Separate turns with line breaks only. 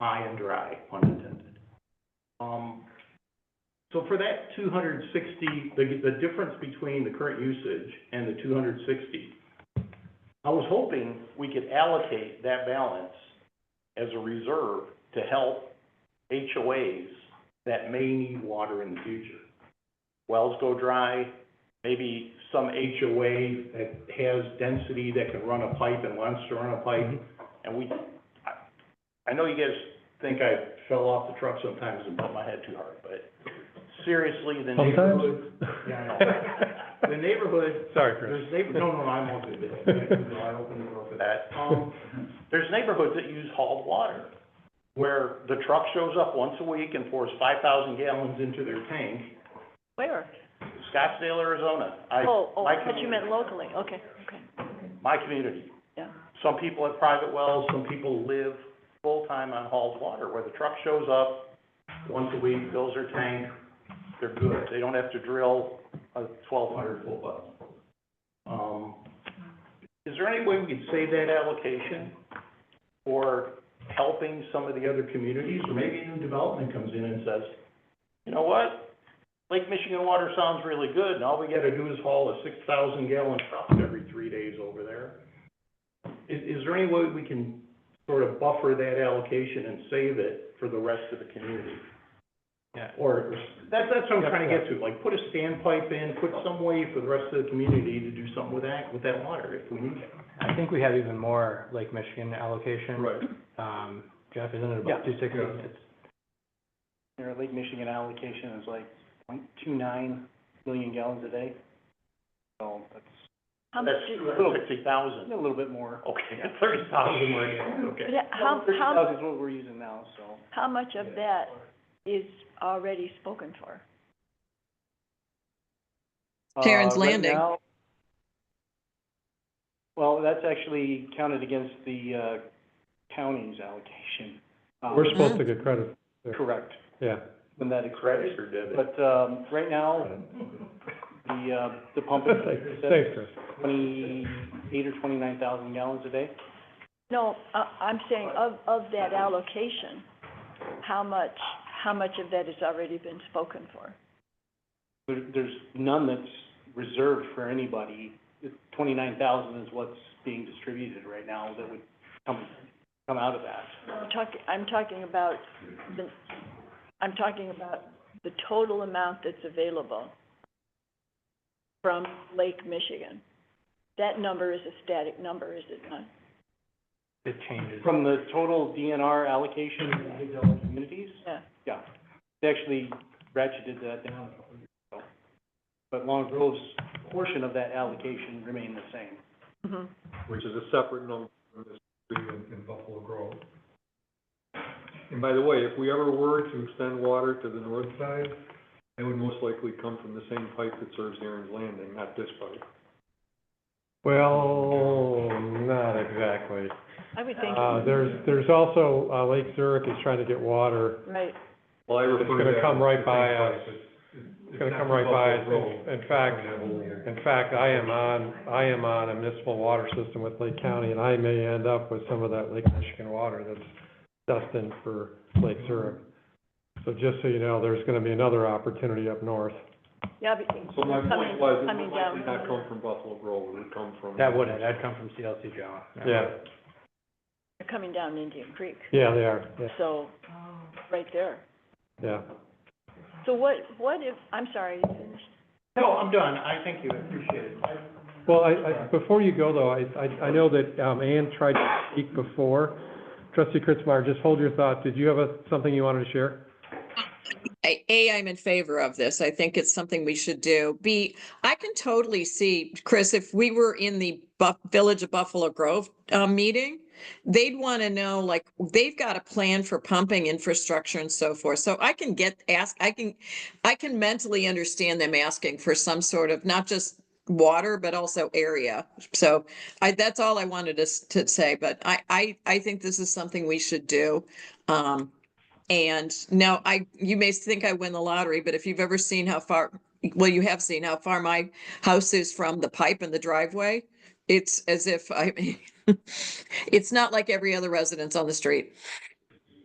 high and dry, pun intended. Um, so for that two hundred sixty, the, the difference between the current usage and the two hundred sixty, I was hoping we could allocate that balance as a reserve to help HOAs that may need water in the future. Wells go dry, maybe some HOA that has density that can run a pipe and wants to run a pipe. And we, I, I know you guys think I fell off the truck sometimes and bumped my head too hard, but seriously, the
Sometimes?
neighborhood. Yeah, I know. The neighborhood,
Sorry, Chris.
there's neighbor, no, no, I'm okay with that. No, I opened the door for that. Um, there's neighborhoods that use hauled water, where the truck shows up once a week and pours five thousand gallons into their tank.
Where?
Scottsdale, Arizona. I,
Oh, oh,
my
I thought you meant
community.
locally, okay, okay,
My community.
yeah.
Some people have private wells, some people live full-time on hauled water, where the truck shows up once a week, fills their tank, they're good. They don't have to drill a twelve hundred foot well. Um, is there any way we could save that allocation for helping some of the other communities? Or maybe a new development comes in and says, you know what? Lake Michigan water sounds really good, and all we gotta do is haul a six thousand gallon truck every three days over there. Is, is there any way we can sort of buffer that allocation and save it for the rest of the community?
Yeah.
Or, that, that's what I'm trying to get to, like, put a standpipe in, put some way for the rest of the community to do something with that, with that water if we need it.
I think we have even more Lake Michigan allocation.
Right.
Um, Jeff, isn't it
Yeah.
about two sixty?
Yeah.
It's
Their Lake Michigan allocation is like point two nine million gallons a day. So that's.
How much
That's
do-
two hundred sixty thousand. A little bit more. Okay, thirty thousand more, yeah,
But
okay.
how, how,
is what we're using now, so.
how much of that is already spoken for?
uh,
Terrence Landing.
Well, that's actually counted against the uh, county's allocation. Um,
We're supposed to get credit,
Correct,
yeah.
when that expires.
Credit or debit?
But um, right now, the, uh, the pump is
Thanks, Chris.
twenty-eight or twenty-nine thousand gallons a day.
No, I, I'm saying of, of that allocation, how much, how much of that has already been spoken for?
There- There's none that's reserved for anybody. Twenty-nine thousand is what's being distributed right now that would come, come out of that.
I'm talking, I'm talking about the, I'm talking about the total amount that's available from Lake Michigan. That number is a static number, is it not?
It changes.
From the total DNR allocation to individual communities,
Yeah.
yeah, they actually ratcheted that down. a couple years ago. But Long Grove's portion of that allocation remained the same.
Mhm.
Which is a separate number from this three in, in Buffalo Grove. And by the way, if we ever were to extend water to the north side, it would most likely come from the same pipe that serves Aaron's Landing, not this pipe.
Well, not exactly.
I would think,
Uh, there's, there's also, uh, Lake Zurich is trying to get water.
right,
Well, I
It's gonna come right by us. It's gonna come right by us.
Road.
In fact, in fact, I am on, I am on a municipal water system with Lake County, and I may end up with some of that Lake Michigan water that's destined for Lake Zurich. So just so you know, there's gonna be another opportunity up north.
yeah, but
So my
coming,
point was, it
coming
would likely
down.
not come from Buffalo Grove, it would come from.
That wouldn't, that'd come from CLC John.
Yeah,
They're coming down Indian Creek,
yeah, they are, yeah,
so, right there.
yeah.
So what, what if, I'm sorry, you finished?
No, I'm done, I thank you, I appreciate it. I-
Well, I, I, before you go though, I, I, I know that, um, Ann tried to speak before. Trustee Kritzmeyer, just hold your thought. Did you have a, something you wanted to share?
I- A, I'm in favor of this. I think it's something we should do. B, I can totally see, Chris, if we were in the Buff, Village of Buffalo Grove, uh, meeting, they'd want to know, like, they've got a plan for pumping infrastructure and so forth. So I can get, ask, I can, I can mentally understand them asking for some sort of, not just water, but also area. So I, that's all I wanted to, s- to say, but I, I, I think this is something we should do. Um, and now I, you may think I win the lottery, but if you've ever seen how far, well, you have seen how far my house is from the pipe and the driveway. It's as if I, it's not like every other residence on the street.